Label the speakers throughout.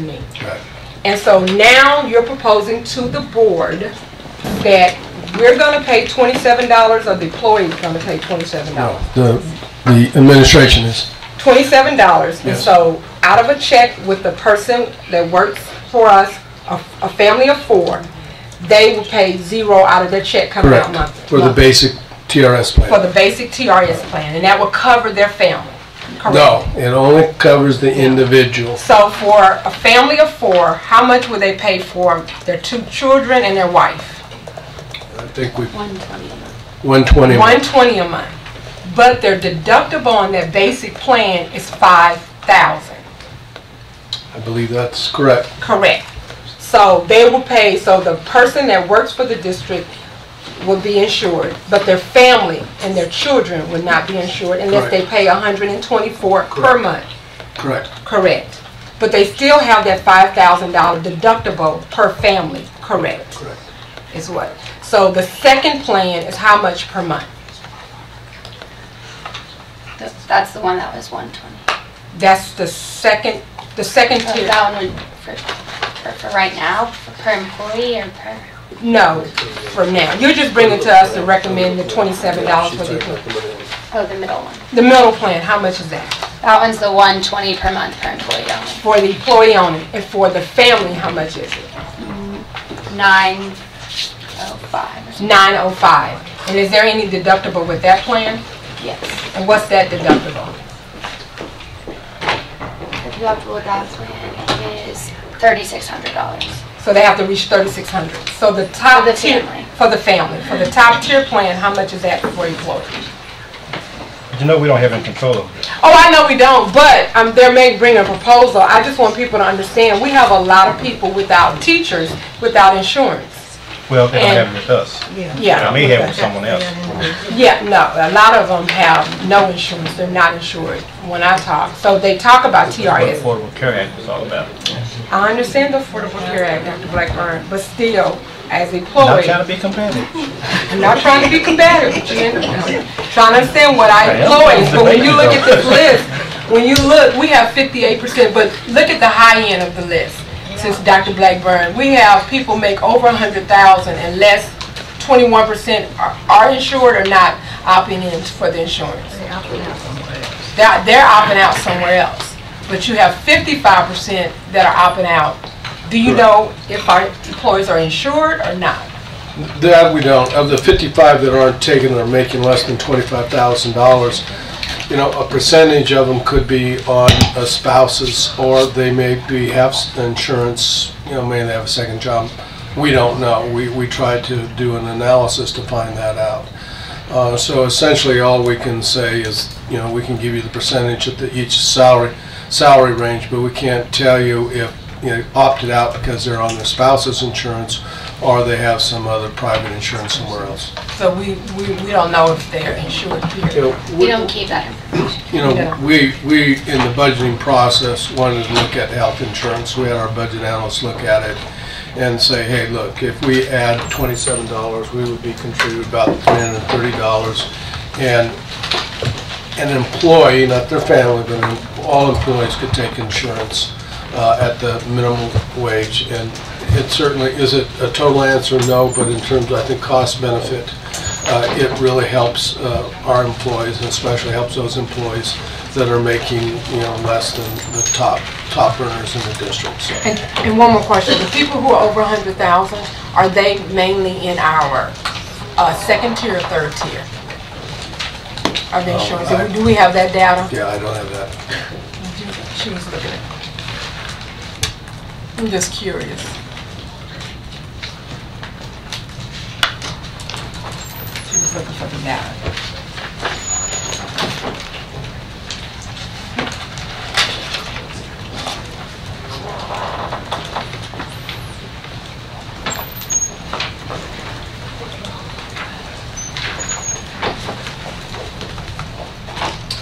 Speaker 1: me.
Speaker 2: Right.
Speaker 1: And so now you're proposing to the board that we're gonna pay twenty-seven dollars or the employee's gonna pay twenty-seven dollars?
Speaker 2: The, the administration is,
Speaker 1: Twenty-seven dollars, and
Speaker 2: Yes.
Speaker 1: so out of a check with the person that works for us, a, a family of four, they will pay zero out of their check coming out
Speaker 2: correct,
Speaker 1: monthly.
Speaker 2: for the basic TRS
Speaker 1: For
Speaker 2: plan.
Speaker 1: the basic TRS plan, and that will cover their family, correct?
Speaker 2: No, it only covers the individual.
Speaker 1: So for a family of four, how much would they pay for their two children and their wife?
Speaker 2: I think we,
Speaker 3: One twenty.
Speaker 2: 120.
Speaker 1: 120 a month, but their deductible on that basic plan is 5,000,
Speaker 2: I believe that's correct.
Speaker 1: correct? So they will pay, so the person that works for the district will be insured, but their family and their children would not be insured unless they
Speaker 2: Correct.
Speaker 1: pay 124 per
Speaker 2: Correct.
Speaker 1: month,
Speaker 2: Correct,
Speaker 1: correct? But they still have that $5,000 deductible per family, correct?
Speaker 2: correct.
Speaker 1: is what. So the second plan is how much per month?
Speaker 3: That's the one that was one twenty.
Speaker 1: That's the second, the second tier.
Speaker 3: That one would, for, for, for right now, for per employee or per?
Speaker 1: No, from now. You're just bringing to us to recommend the twenty-seven dollars for the,
Speaker 3: Oh, the middle one.
Speaker 1: the middle plan, how much is that?
Speaker 3: That one's the one twenty per month per employee only.
Speaker 1: For the employee only, and for the family, how much is it?
Speaker 3: Nine oh five or something.
Speaker 1: Nine oh five. And is there any deductible with that plan?
Speaker 3: Yes.
Speaker 1: And what's that deductible?
Speaker 3: The deductible with that plan is thirty-six hundred dollars.
Speaker 1: So they have to reach thirty-six hundred. So the top
Speaker 3: For the
Speaker 1: tier.
Speaker 3: family.
Speaker 1: For the family. For the top tier plan, how much is that for employees?
Speaker 4: You know, we don't have any control over this.
Speaker 1: Oh, I know we don't, but um, there may bring a proposal. I just want people to understand, we have a lot of people without teachers, without insurance.
Speaker 4: Well, they don't
Speaker 1: And-
Speaker 4: have it with us.
Speaker 1: Yeah.
Speaker 4: I may have it with someone else.
Speaker 1: Yeah, no, a lot of them have no insurance, they're not insured when I talk. So they talk about
Speaker 4: What
Speaker 1: TRS.
Speaker 4: Affordable Care Act was all about.
Speaker 1: I understand the Affordable Care Act, Dr. Blackburn, but still, as
Speaker 4: Not
Speaker 1: employees,
Speaker 4: trying to be competitive.
Speaker 1: I'm not trying to be combative, but you know, trying to understand what I
Speaker 4: am.
Speaker 1: employ. But when you look at this
Speaker 4: Debating,
Speaker 1: list, when you look, we have fifty-eight percent, but look at the high end of the list. Since Dr. Blackburn, we have people make over a hundred thousand and less, twenty-one percent are are insured or not opting in for the insurance. They're, they're opting out somewhere else. But you have fifty-five percent that are opting out. Do you know if our employees are insured or not?
Speaker 2: That we don't. Of the 55 that aren't taking or making less than $25,000, you know, a percentage of them could be on a spouse's, or they may be, have s- insurance, you know, may they have a second job. We don't know. We, we tried to do an analysis to find that out. Uh, So essentially, all we can say is, you know, we can give you the percentage at the- each salary, salary range, but we can't tell you if, you know, opted out because they're on their spouse's insurance or they have some other private insurance somewhere else.
Speaker 1: So we, we, we don't know if they're insured
Speaker 2: You
Speaker 1: here.
Speaker 2: know,
Speaker 3: We
Speaker 2: we-
Speaker 3: don't keep that information.
Speaker 2: You
Speaker 1: Yeah.
Speaker 2: know, we, we, in the budgeting process, wanted to look at health insurance. We had our budget analysts look at it and say, hey, look, if we add twenty-seven dollars, we would be contributing about three hundred and thirty dollars. And an employee, not their family, but all employees could take insurance uh, at the minimum wage. And it certainly, is it a total answer? No, but in terms, of, I think, cost benefit, uh, it really helps uh, our employees, and especially helps those employees that are making, you know, less than the top, top earners in the district, so.
Speaker 1: And, and one more question, the people who are over a hundred thousand, are they mainly in our, uh, second tier or third tier? Of the insurance, Do we- do we have that data?
Speaker 2: Yeah, I don't have that.
Speaker 1: She was looking at. I'm just curious. She was looking for the data.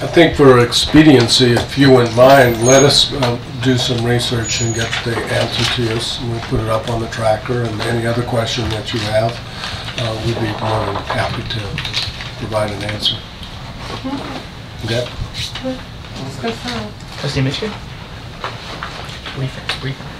Speaker 2: I think for expediency, if you wouldn't mind, let us uh, do some research and get the answer to us, and we'll put it up on the tracker, and any other question that you have, uh, we'd be more than happy to provide an answer. Okay?
Speaker 4: Trustee Mitchell? Brief, brief.